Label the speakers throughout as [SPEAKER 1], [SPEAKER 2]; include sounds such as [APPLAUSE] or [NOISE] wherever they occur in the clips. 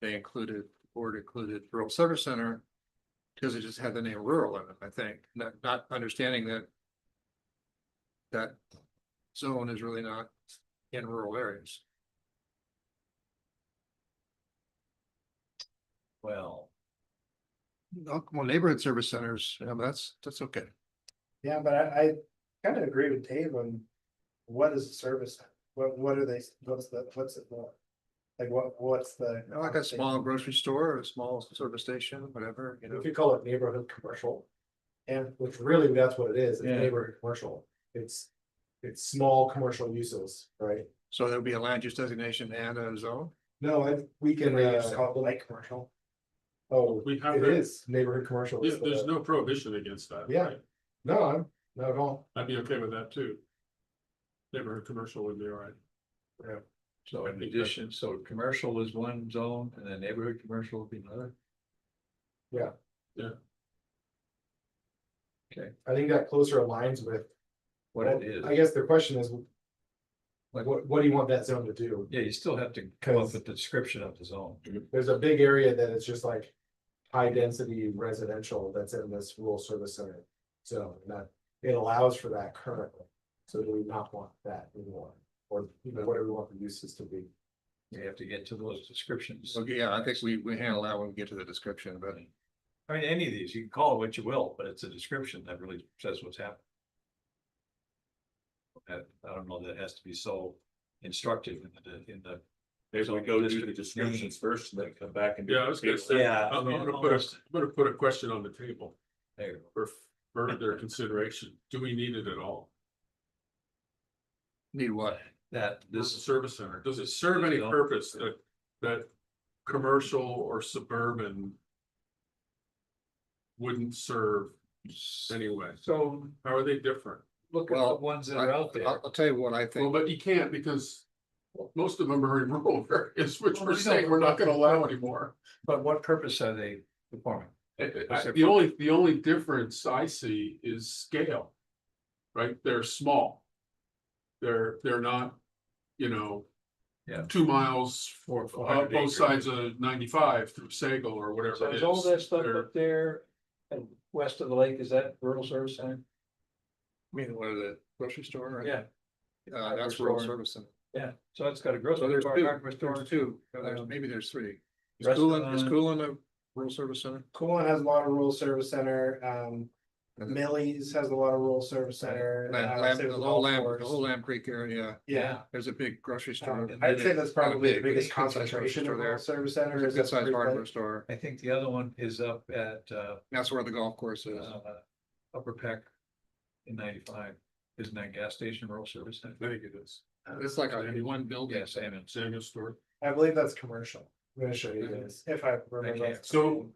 [SPEAKER 1] they included, board included rural service center. Cause it just had the name rural in it, I think, not, not understanding that. That zone is really not in rural areas.
[SPEAKER 2] Well,
[SPEAKER 1] Oh, Well, neighborhood service centers, um, that's, that's okay.
[SPEAKER 3] Yeah, but I, I kind of agree with Dave on what is the service? What, what are they, what's the, what's it for? Like what, what's the?
[SPEAKER 1] You know, Like a small grocery store or a small service station, whatever, you
[SPEAKER 3] You know,
[SPEAKER 1] know,
[SPEAKER 3] If you call it neighborhood commercial, and which really that's what it is, it's
[SPEAKER 2] Yeah.
[SPEAKER 3] neighborhood commercial. It's, it's small commercial uses, right?
[SPEAKER 1] so there'll be a land use designation and a zone.
[SPEAKER 3] No, I, we can. uh,
[SPEAKER 4] we just
[SPEAKER 3] call it light commercial. Oh,
[SPEAKER 4] We have
[SPEAKER 3] it
[SPEAKER 4] that,
[SPEAKER 3] is neighborhood commercial.
[SPEAKER 4] yeah,
[SPEAKER 3] is
[SPEAKER 4] there's
[SPEAKER 3] the-
[SPEAKER 4] no prohibition against that,
[SPEAKER 3] Yeah.
[SPEAKER 4] right?
[SPEAKER 3] No, I'm, not at all.
[SPEAKER 4] I'd be okay with that too. Neighborhood commercial would be all right.
[SPEAKER 2] so in addition, so commercial is one zone and then neighborhood commercial would be another.
[SPEAKER 3] I think that closer aligns with
[SPEAKER 2] What it is,
[SPEAKER 3] I guess the question is. Like, what, what do you want that zone to do?
[SPEAKER 2] yeah, you still have to come up
[SPEAKER 3] Cause-
[SPEAKER 2] with the description of the zone.
[SPEAKER 3] There's a big area that is just like. High density residential that's in this rural service center zone, and that it allows for that currently. So do we not want that anymore? Or you know, whatever we want the uses to be?
[SPEAKER 2] You have to get to those descriptions.
[SPEAKER 1] Okay, yeah, I think we, we handle that when we get to the description, but
[SPEAKER 2] I mean, any of these, you can call it what you will, but it's a description that really says what's happening. That, I don't know, that has to be so instructive in the, in the.
[SPEAKER 5] Maybe we go do the descriptions first and then come back and. do
[SPEAKER 4] Yeah, I was gonna
[SPEAKER 5] the-
[SPEAKER 4] say-
[SPEAKER 2] Yeah.
[SPEAKER 4] I'm I'm gonna put, a am gonna put a question on the table
[SPEAKER 2] There you go.
[SPEAKER 4] for further consideration. Do we need it at all?
[SPEAKER 1] need what?
[SPEAKER 2] That,
[SPEAKER 4] This
[SPEAKER 2] this,
[SPEAKER 4] service center, does it serve any
[SPEAKER 2] No.
[SPEAKER 4] purpose that, that commercial or suburban? Wouldn't serve anyway.
[SPEAKER 2] so
[SPEAKER 4] How are they different?
[SPEAKER 2] look at the
[SPEAKER 1] Well,
[SPEAKER 2] ones that
[SPEAKER 1] I-
[SPEAKER 2] are out there.
[SPEAKER 1] I'll, I'll tell you what I
[SPEAKER 4] Well,
[SPEAKER 1] think.
[SPEAKER 4] but you can't because most of them are in rural [LAUGHS] areas, which
[SPEAKER 2] Well,
[SPEAKER 4] we're
[SPEAKER 2] we
[SPEAKER 4] saying
[SPEAKER 2] don't-
[SPEAKER 4] we're not gonna allow anymore.
[SPEAKER 2] But what purpose are they performing?
[SPEAKER 4] I- I-
[SPEAKER 2] Except
[SPEAKER 4] The
[SPEAKER 2] for-
[SPEAKER 4] only, the only difference I see is scale. Right? They're small. They're, they're not, you know.
[SPEAKER 2] Yeah.
[SPEAKER 4] Two miles
[SPEAKER 2] For,
[SPEAKER 4] uh, both sides of ninety-five through Sagal or
[SPEAKER 2] So
[SPEAKER 4] whatever it
[SPEAKER 2] is
[SPEAKER 4] is.
[SPEAKER 2] all that stuff
[SPEAKER 4] They're-
[SPEAKER 2] up there and west of the lake, is that rural service center?
[SPEAKER 1] I mean, what is it, grocery store? or-
[SPEAKER 2] Yeah.
[SPEAKER 1] Uh, that's rural
[SPEAKER 2] Store.
[SPEAKER 1] service center.
[SPEAKER 2] Yeah, so it's got a
[SPEAKER 1] So
[SPEAKER 2] grocery
[SPEAKER 1] there's
[SPEAKER 2] store,
[SPEAKER 1] two,
[SPEAKER 2] hardware store
[SPEAKER 1] there's
[SPEAKER 2] too.
[SPEAKER 1] two, No, there's,
[SPEAKER 2] Um,
[SPEAKER 1] maybe there's three. Is Coolin, is
[SPEAKER 2] Restaurant.
[SPEAKER 1] Coolin a rural service center?
[SPEAKER 3] Coolin has a lot of rural service center, um,
[SPEAKER 1] And the-
[SPEAKER 3] Millie's has a lot of rural service center. uh,
[SPEAKER 1] Lam- Lamb- The whole Lamb, the whole Lamb Creek area,
[SPEAKER 3] Yeah.
[SPEAKER 1] there's a big grocery store.
[SPEAKER 2] Um,
[SPEAKER 3] I'd say that's probably the
[SPEAKER 1] Big,
[SPEAKER 3] biggest
[SPEAKER 1] good size grocery
[SPEAKER 3] concentration
[SPEAKER 1] store
[SPEAKER 3] of rural
[SPEAKER 1] there.
[SPEAKER 3] service center.
[SPEAKER 1] There's a good sized hardware
[SPEAKER 3] part.
[SPEAKER 1] store.
[SPEAKER 2] I think the other one is up at uh,
[SPEAKER 1] That's where the golf course is.
[SPEAKER 2] uh, Upper Peck in ninety-five. Isn't that gas station rural service center?
[SPEAKER 4] I think it is.
[SPEAKER 3] Uh,
[SPEAKER 1] It's like a one building.
[SPEAKER 2] Yes, I mean,
[SPEAKER 4] Samuel store.
[SPEAKER 3] I believe that's commercial. I'm gonna show you this, if I remember.
[SPEAKER 2] can't.
[SPEAKER 4] So-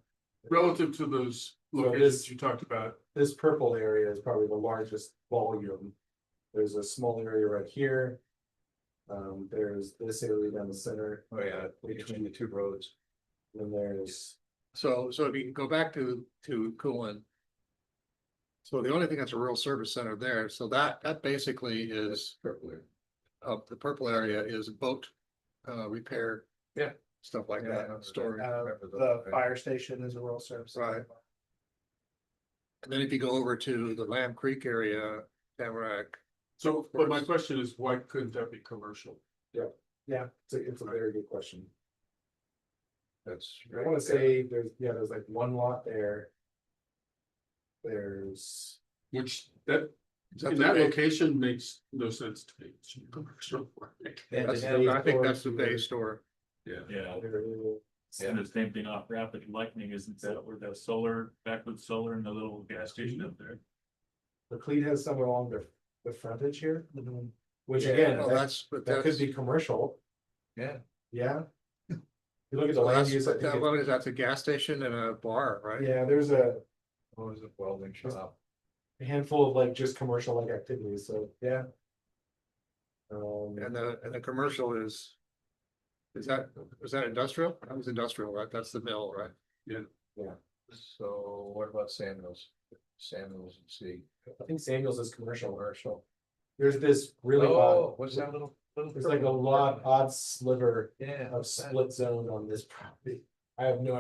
[SPEAKER 4] Relative to those
[SPEAKER 3] So it
[SPEAKER 4] locations
[SPEAKER 3] is-
[SPEAKER 4] you talked about,
[SPEAKER 3] This purple area is probably the largest volume. There's a small area right here. Um, there's this area down the center,
[SPEAKER 2] oh yeah, between the two roads.
[SPEAKER 3] and then there's,
[SPEAKER 1] So, so if you can go back to, to Coolin. So the only thing that's a rural service center there, so that, that basically is. Uh, the purple area is boat, uh, repair.
[SPEAKER 2] Yeah.
[SPEAKER 1] Stuff like
[SPEAKER 2] Yeah, I remember
[SPEAKER 1] that,
[SPEAKER 2] that.
[SPEAKER 1] storage.
[SPEAKER 3] uh,
[SPEAKER 2] Remember
[SPEAKER 3] the
[SPEAKER 2] those, right?
[SPEAKER 3] fire station is a rural service. center.
[SPEAKER 1] And then if you go over to the Lamb Creek area, Tamarack,
[SPEAKER 4] so, but my question is, why couldn't that be commercial?
[SPEAKER 3] Yeah, it's a, it's a very good question.
[SPEAKER 2] That's.
[SPEAKER 3] I wanna say there's, yeah, there's like one lot there. There's,
[SPEAKER 4] Which that,
[SPEAKER 1] Is that
[SPEAKER 4] in
[SPEAKER 1] the
[SPEAKER 4] that
[SPEAKER 1] big-
[SPEAKER 4] location makes no sense to me. It should be commercial.
[SPEAKER 2] And
[SPEAKER 1] that's,
[SPEAKER 2] it
[SPEAKER 3] the-
[SPEAKER 2] has-
[SPEAKER 1] I think that's the day store.
[SPEAKER 4] Yeah,
[SPEAKER 5] Yeah,
[SPEAKER 3] there is.
[SPEAKER 5] and the same thing off Rapid Lightning, isn't that where the solar, backwood solar and the little gas station up there?
[SPEAKER 3] McLeod has some along the, the frontage here,
[SPEAKER 2] Mm-hmm.
[SPEAKER 3] which
[SPEAKER 2] Yeah,
[SPEAKER 3] again,
[SPEAKER 1] Oh,
[SPEAKER 3] that,
[SPEAKER 1] that's, but
[SPEAKER 3] that
[SPEAKER 1] that's,
[SPEAKER 3] could be commercial,
[SPEAKER 2] Yeah,
[SPEAKER 1] [LAUGHS]
[SPEAKER 3] yeah. You look at the
[SPEAKER 1] so
[SPEAKER 3] land
[SPEAKER 1] that's,
[SPEAKER 3] use, I
[SPEAKER 1] but
[SPEAKER 3] think,
[SPEAKER 1] that
[SPEAKER 3] it-
[SPEAKER 1] one is, that's a gas station and a bar, right?
[SPEAKER 3] yeah, there's a
[SPEAKER 2] what was it, welding shop?
[SPEAKER 3] handful of like just commercial like activities, so, yeah. Um,
[SPEAKER 1] And the, and the commercial is. Is that, is that industrial? That was industrial, right? That's the mill, right?
[SPEAKER 2] So what about Samuels? Samuels and C.
[SPEAKER 3] I think Samuels is commercial, commercial. There's this really odd,
[SPEAKER 1] Oh.
[SPEAKER 2] Oh, what's that little?
[SPEAKER 3] There's like a lot odd sliver of split zone on this property. I have no